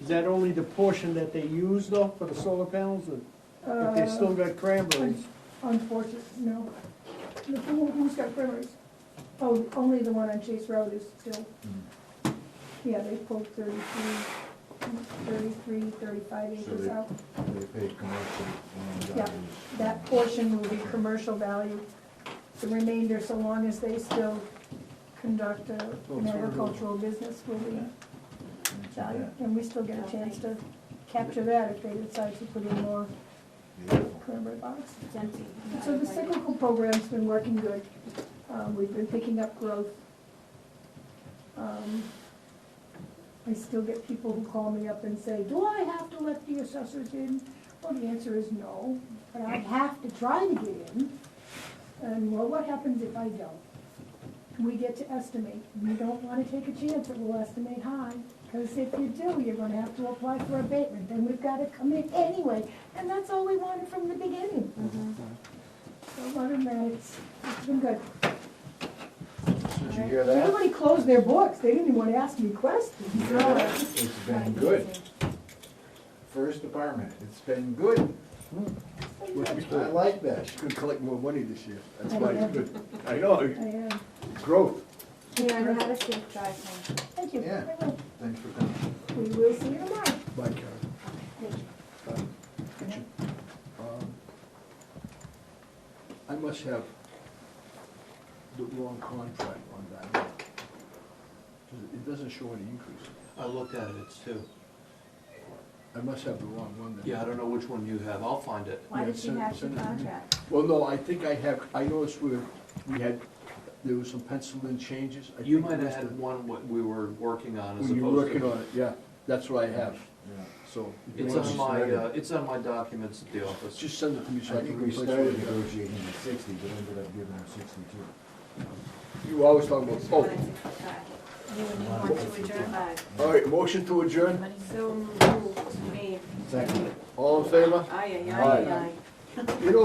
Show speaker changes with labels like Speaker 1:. Speaker 1: Is that only the portion that they use though for the solar panels, or if they still got cranberries?
Speaker 2: Unfortunately, Uh, no. The- who- Who's got primers? Oh, only the one on Chase Road is still,
Speaker 3: Mm.
Speaker 2: yeah, they pulled 33, 33, 35
Speaker 3: So
Speaker 2: acres
Speaker 3: they-
Speaker 2: out.
Speaker 3: They pay commercial uh, land
Speaker 2: Yeah,
Speaker 3: values.
Speaker 2: That portion will be commercial value. The remainder, so long as they still conduct a- an agricultural business, will be valued. And we still get a chance to capture that if they decide to put in more
Speaker 3: Beautiful.
Speaker 2: primary box.
Speaker 4: It's empty.
Speaker 2: So the cyclical program's been working good. Um, we've been picking up growth. Um, I still get people who call me up and say, do I have to let the assessors in? Well, the answer is no, but I have to try to get in. And well, what happens if I don't? We get to estimate. We don't wanna take a chance that we'll estimate high, cause if you do, you're gonna have to apply for abatement, then we've gotta come in anyway. And that's all we wanted from the beginning. So other than that, it's, it's been good.
Speaker 3: Did you hear that?
Speaker 2: Everybody closed their books, they didn't even wanna ask me questions.
Speaker 3: It's been good. First department, it's been good. I like that.
Speaker 5: Could collect more money this year, that's
Speaker 2: I
Speaker 5: why
Speaker 2: know.
Speaker 5: it's good. I know,
Speaker 2: I am,
Speaker 5: growth.
Speaker 4: Yeah, I know how to sleep drive now.
Speaker 2: thank you.
Speaker 3: Yeah.
Speaker 2: I will.
Speaker 3: Thanks for coming.
Speaker 2: We will see you tomorrow.
Speaker 5: Bye, Karen.
Speaker 4: Thank you.
Speaker 5: Um, I must have the wrong contract on that. one. 'Cause It doesn't show any increase.
Speaker 6: I looked at it, it's two.
Speaker 5: I must have the wrong one then.
Speaker 6: Yeah, I don't know which one you have, I'll find it.
Speaker 4: Why
Speaker 5: Yeah,
Speaker 4: did she
Speaker 5: send-
Speaker 4: have two
Speaker 5: send it to me.
Speaker 4: contracts?
Speaker 5: Well, no, I think I have, I noticed where we had, there was some pencil in changes. I
Speaker 6: You
Speaker 5: think
Speaker 6: might
Speaker 5: it
Speaker 6: have
Speaker 5: was
Speaker 6: had
Speaker 5: the-
Speaker 6: one what we were working on as
Speaker 5: When you were
Speaker 6: opposed
Speaker 5: working
Speaker 6: to.
Speaker 5: on it, yeah, that's what I have,
Speaker 3: Yeah.
Speaker 5: so. if you
Speaker 6: It's
Speaker 5: want
Speaker 6: on
Speaker 5: to-
Speaker 6: my, uh, it's on my documents at the office.
Speaker 5: Just send it to me so
Speaker 3: I
Speaker 5: I can
Speaker 3: think we
Speaker 5: replace it.
Speaker 3: started negotiating at sixty, but ended up giving them sixty-two.
Speaker 5: You always talk about,
Speaker 4: One at
Speaker 5: oh,
Speaker 4: six o'clock. You would want to adjourn by.
Speaker 5: all right, motion to adjourn,
Speaker 4: So moved, made.
Speaker 3: Second.
Speaker 5: all in favor?
Speaker 4: Aye, aye, aye, aye.
Speaker 5: You know,